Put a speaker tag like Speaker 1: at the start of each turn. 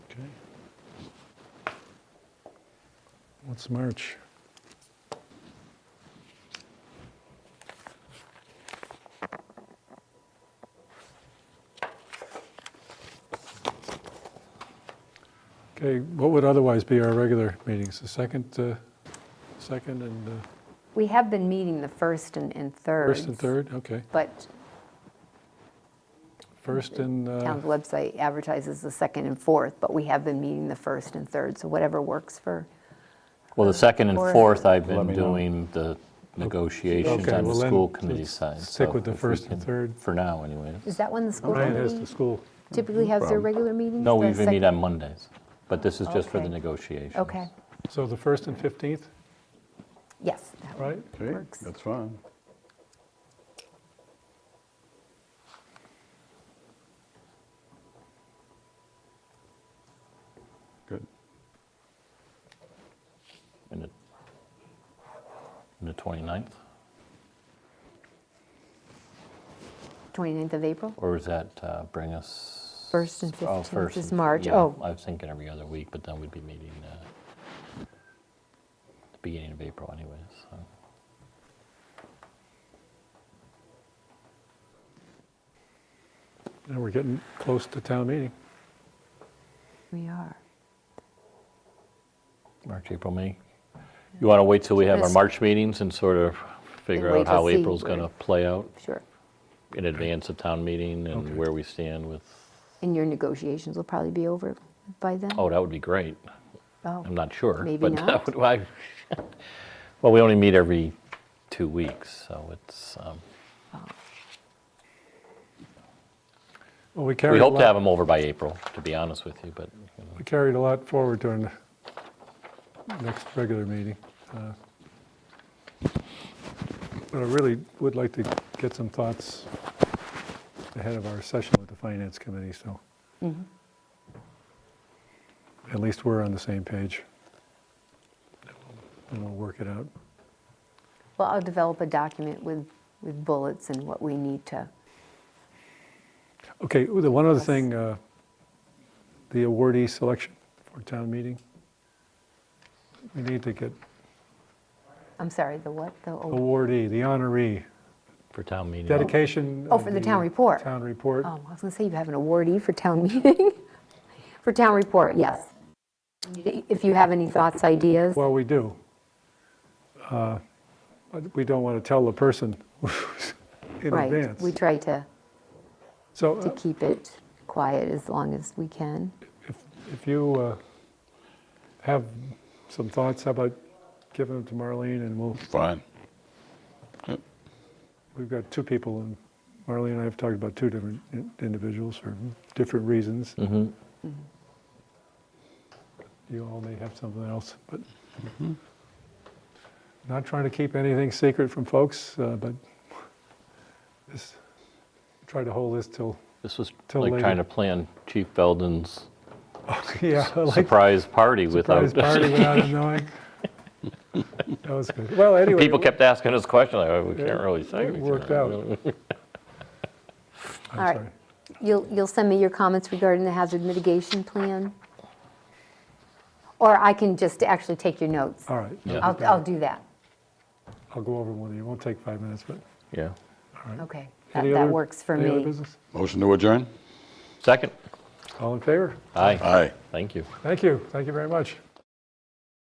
Speaker 1: Okay. What's March? Okay, what would otherwise be our regular meetings? The second, uh, second and uh,
Speaker 2: We have been meeting the first and, and third.
Speaker 1: first and third? Okay,
Speaker 2: But
Speaker 1: first and, uh,
Speaker 2: town's website advertises the second and fourth, but we have been meeting the first and third, so whatever works for,
Speaker 3: Well, the second and
Speaker 2: Or-
Speaker 3: fourth, I've
Speaker 4: Let
Speaker 3: been
Speaker 4: me know.
Speaker 3: doing the negotiations
Speaker 1: Okay,
Speaker 3: on the
Speaker 1: well then,
Speaker 3: school committee
Speaker 1: let's
Speaker 3: side.
Speaker 1: stick
Speaker 3: so
Speaker 1: with the
Speaker 3: if we
Speaker 1: first and
Speaker 3: can-
Speaker 1: third.
Speaker 3: For now, anyway.
Speaker 2: is that when the school
Speaker 1: Ryan has the
Speaker 2: committee
Speaker 1: school.
Speaker 2: typically has their
Speaker 4: problem.
Speaker 2: regular meetings?
Speaker 3: No,
Speaker 2: The
Speaker 3: we meet
Speaker 2: sec-
Speaker 3: on Mondays, but this is just for the
Speaker 2: Okay.
Speaker 3: negotiations.
Speaker 2: Okay,
Speaker 1: So the first and 15th,
Speaker 2: yes, that
Speaker 1: right?
Speaker 4: Okay,
Speaker 2: Works.
Speaker 4: that's fine. Good.
Speaker 3: And the- and the 29th,
Speaker 2: 29th of April?
Speaker 3: or does that uh, bring us?
Speaker 2: First and
Speaker 3: oh,
Speaker 2: 15th
Speaker 3: first
Speaker 2: is
Speaker 3: and-
Speaker 2: March.
Speaker 3: yeah,
Speaker 2: Oh.
Speaker 3: I was thinking every other week, but then we'd be meeting uh, the beginning of April anyways, so.
Speaker 1: And we're getting close to town meeting.
Speaker 2: We are.
Speaker 3: March, April, May. You want to wait till we have our
Speaker 2: Yes.
Speaker 3: March meetings and sort of figure
Speaker 2: And wait
Speaker 3: out
Speaker 2: to
Speaker 3: how
Speaker 2: see
Speaker 3: April's going to
Speaker 2: where-
Speaker 3: play out
Speaker 2: Sure.
Speaker 3: in advance of town meeting
Speaker 1: Okay.
Speaker 3: and where we stand with,
Speaker 2: And your negotiations will probably be over by then?
Speaker 3: oh, that would be great.
Speaker 2: Oh,
Speaker 3: I'm not sure.
Speaker 2: Maybe
Speaker 3: but that
Speaker 2: not.
Speaker 3: would- why- Well, we only meet every two weeks, so it's, um,
Speaker 1: Well, we
Speaker 3: we
Speaker 1: carried a
Speaker 3: hope to have
Speaker 1: lot,
Speaker 3: them over by April, to be honest with you, but you know,
Speaker 1: we carried a lot forward during the next regular meeting. uh, But I really would like to get some thoughts ahead of our session with the Finance Committee, so.
Speaker 3: Mm-hmm.
Speaker 1: At least we're on the same page. And we'll work it out.
Speaker 2: Well, I'll develop a document with, with bullets and what we need to,
Speaker 1: Okay, the one other
Speaker 2: Yes.
Speaker 1: thing, uh, the awardee selection for town meeting. We need to get
Speaker 2: I'm sorry, the what, the, oh,
Speaker 1: awardee, the honoree,
Speaker 3: for town meeting.
Speaker 1: dedication.
Speaker 2: Oh,
Speaker 1: of
Speaker 2: for the town report.
Speaker 1: Town report.
Speaker 2: oh, I was gonna say you have an awardee for town meeting, for town report, yes. If you have any thoughts, ideas,
Speaker 1: Well, we do. Uh, But we don't want to tell the person in
Speaker 2: right, we
Speaker 1: advance.
Speaker 2: try to,
Speaker 1: So
Speaker 2: to
Speaker 1: uh,
Speaker 2: keep it quiet as long as we can.
Speaker 1: if if you uh, have some thoughts, how about giving them to Marlene and we'll
Speaker 4: Fine.
Speaker 1: We've got two people, and Marlene and I have talked about two different in- individuals for different reasons.
Speaker 3: Mhm.
Speaker 1: You all may have something else, but
Speaker 3: Mm-hmm.
Speaker 1: not trying to keep anything secret from folks, uh, but this, try to hold this till,
Speaker 3: This was
Speaker 1: Till
Speaker 3: like
Speaker 1: later.
Speaker 3: trying to plan Chief Belden's
Speaker 1: yeah, I like
Speaker 3: surprise party without.
Speaker 1: surprise party without him knowing. That was good. Well, anyway.
Speaker 3: People
Speaker 1: it
Speaker 3: kept asking us questions, like, "Oh, we
Speaker 1: Yeah,
Speaker 3: can't really say.
Speaker 1: it
Speaker 3: we
Speaker 1: worked
Speaker 3: can't
Speaker 1: out.
Speaker 3: really-"
Speaker 1: wo-
Speaker 2: All
Speaker 1: I'm
Speaker 2: right.
Speaker 1: sorry.
Speaker 2: You'll, you'll send me your comments regarding the hazard mitigation plan? Or I can just actually take your notes.
Speaker 1: All right.
Speaker 3: Yeah.
Speaker 2: I'll, I'll do that,
Speaker 1: I'll go over one of you. It won't take five minutes, but.
Speaker 3: Yeah.
Speaker 2: okay. That,
Speaker 1: any
Speaker 2: that
Speaker 1: other-
Speaker 2: works for
Speaker 1: Any other
Speaker 2: me.
Speaker 1: business?
Speaker 4: Motion to adjourn?
Speaker 3: Second.
Speaker 1: All in favor?
Speaker 3: Aye.
Speaker 4: Aye.
Speaker 3: Thank you.
Speaker 1: Thank you. Thank you very much.